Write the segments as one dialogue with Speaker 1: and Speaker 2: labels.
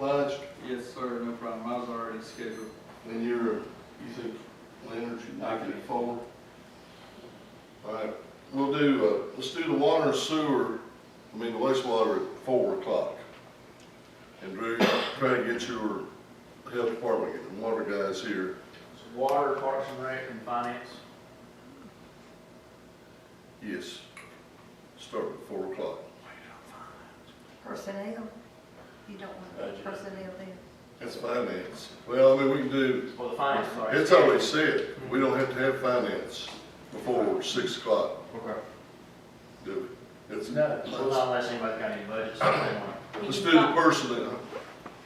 Speaker 1: lunch,
Speaker 2: Yes, sir, no problem. I was already scheduled.
Speaker 1: and you're, you think Leonard, you I can afford? All right, we'll do, uh, let's do the water and sewer, I mean, the wastewater at four o'clock. And Drew, try to get your health department and water guys here.
Speaker 3: So water, parks and rec, and finance.
Speaker 1: Yes, start at four o'clock.
Speaker 4: Personnel, you don't want
Speaker 3: Budget.
Speaker 4: personnel then?
Speaker 1: That's finance. Well, I mean, we can do,
Speaker 3: Well, the finance, sorry.
Speaker 1: it's already said, we don't have to have finance before six o'clock,
Speaker 3: Okay.
Speaker 1: do we? It's-
Speaker 3: No, well, not unless anybody's got any budgets, so they want.
Speaker 1: Let's do the personnel.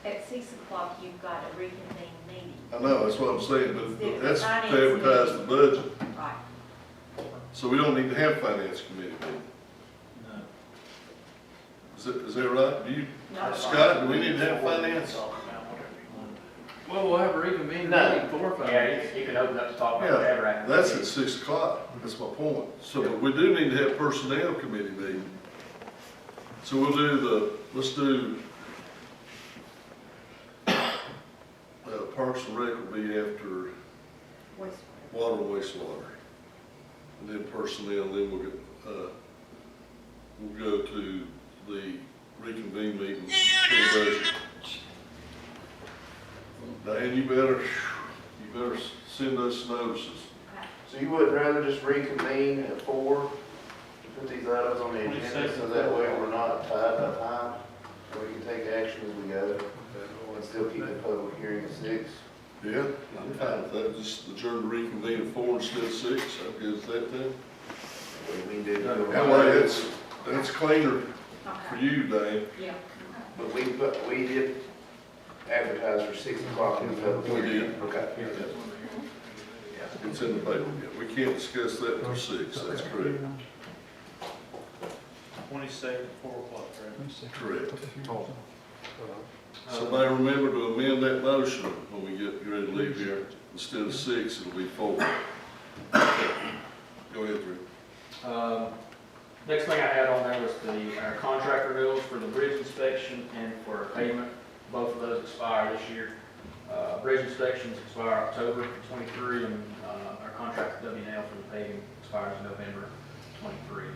Speaker 5: At six o'clock, you've got a reconvene meeting,
Speaker 1: I know, that's what I'm saying, but but that's to advertise the budget,
Speaker 5: right?
Speaker 1: so we don't need to have finance committee meeting. Is that, is that right? Do you,
Speaker 5: No.
Speaker 1: Scott, do we need to have finance?
Speaker 3: Talk about whatever you want.
Speaker 2: Well, we'll have a reconvene
Speaker 3: No.
Speaker 2: meeting for
Speaker 3: Yeah,
Speaker 2: finance.
Speaker 3: you- you can open up to talk about whatever.
Speaker 1: Yeah,
Speaker 3: after the
Speaker 1: that's
Speaker 3: meeting.
Speaker 1: at six o'clock, that's my point. So but we do need to have personnel committee meeting. So we'll do the, let's do, uh, Parks and Rec will be after
Speaker 4: Wastewater.
Speaker 1: water, and wastewater. And then personnel, then we'll get, uh, we'll go to the reconvene meeting for the budget. Diane, you better, you better send us notices.
Speaker 6: So you would rather just reconvene at four, to put these items on the agenda, so that way we're not tied by time? and We can take action as we go, and still keep the public hearing at six?
Speaker 1: Yeah, I'm fine with that, just adjourn to reconvene at four instead of six, I'm good with that then.
Speaker 6: We can do it.
Speaker 1: That way, that's, that's cleaner for
Speaker 5: Okay,
Speaker 1: you, Diane.
Speaker 5: yeah.
Speaker 6: But we, but we did advertise for six o'clock in the public
Speaker 1: We
Speaker 6: hearing.
Speaker 1: did.
Speaker 6: Okay.
Speaker 1: It's in the paper, yeah, we can't discuss that until six, that's correct.
Speaker 3: Twenty-second, four o'clock, right?
Speaker 1: Correct. Somebody remember to amend that motion when we get ready to leave here. Instead of six, it'll be four. Go ahead, Drew.
Speaker 3: Um, Next thing I had on there was the, our contract renewals for the bridge inspection and for payment. Both of those expire this year. Uh, Bridge inspections expire October twenty-three, and uh, our contract with WNL for the paving expires November twenty-three.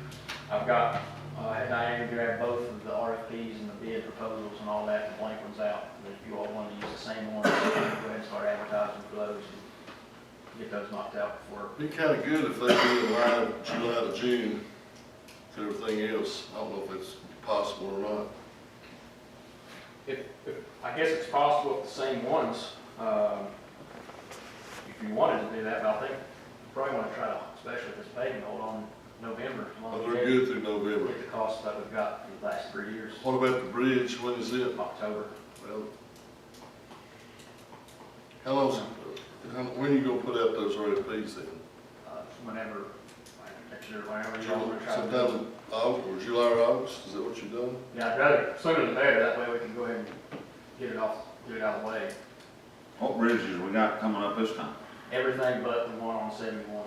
Speaker 3: I've got, uh, had Diane grab both of the RFPs and the bid proposals and all that, and blank ones out. But If you all wanted to use the same one, go ahead and start advertising for those and get those knocked out before
Speaker 1: Be kinda good if they do a line July to June to everything else. I don't know if it's possible or not.
Speaker 3: If, if, I guess it's possible with the same ones, um, if you wanted to do that, but I think you probably wanna try to, especially if it's paving, hold on November. as long
Speaker 1: But
Speaker 3: as
Speaker 1: they're
Speaker 3: we
Speaker 1: good through November.
Speaker 3: Get the costs that we've got for the last three years,
Speaker 1: What about the bridge? When is it?
Speaker 3: October.
Speaker 1: Well, how long's, how, when you gonna put out those RFPs then?
Speaker 3: Uh, whenever, like, next year, whenever you all wanna try to. do it.
Speaker 1: Sometime in August, or July or August, is that what you've done?
Speaker 3: Yeah, I'd rather, sooner the better, that way we can go ahead and get it off, get it out of the way.
Speaker 7: What bridges we got coming up this time?
Speaker 3: Everything but the one on seventy-one.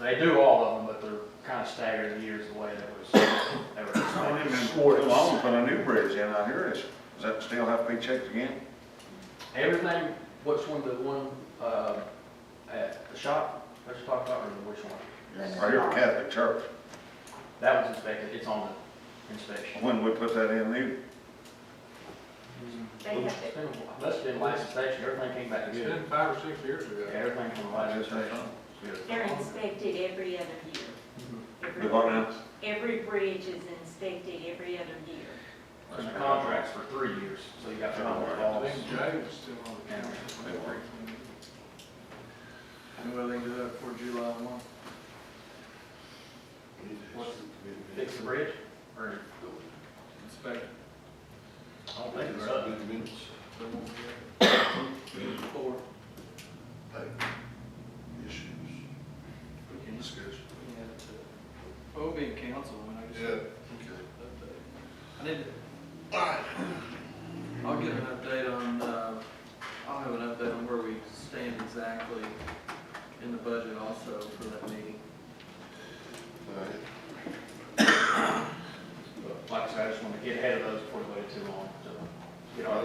Speaker 3: They do all of them, but they're kinda staggered years the way that was, they were expected.
Speaker 7: Too long to put a new bridge in out here, is, does that still have to be checked again?
Speaker 3: Everything, which one, the one, uh, at the shop, let's talk about, or which one?
Speaker 7: Right here at Catholic Church,
Speaker 3: That one's inspected, it's on the inspection.
Speaker 7: when we put that in new,
Speaker 5: They have to-
Speaker 3: It's been a while. That's been last inspection, everything came back
Speaker 2: It's
Speaker 3: good.
Speaker 2: been five or six years ago.
Speaker 3: Yeah, everything from the last
Speaker 7: that's that
Speaker 3: inspection.
Speaker 7: on.
Speaker 3: Good.
Speaker 5: They're inspected every other year. Every-
Speaker 1: Mm-hmm.
Speaker 7: The what now?
Speaker 5: Every bridge is inspected every other year.
Speaker 3: And the contract's for three years, so you got time with
Speaker 2: I
Speaker 3: all
Speaker 2: think Jay was still on the council.
Speaker 7: They were.
Speaker 2: And well, they do that for July one.
Speaker 3: Fix the bridge, or,
Speaker 2: Inspect.
Speaker 3: I don't think it's up.
Speaker 2: They won't be able to. Four.
Speaker 1: Issues. We can discuss.
Speaker 2: Yeah, it's, uh, Well, we'll be in council when I
Speaker 1: Yeah,
Speaker 2: just.
Speaker 1: okay.
Speaker 2: I need, I'll get an update on, uh, I'll have an update on where we stand exactly in the budget also for that meeting.
Speaker 1: All right.
Speaker 3: But Like I said, I just wanna get ahead of those before we wait too long, so. get our-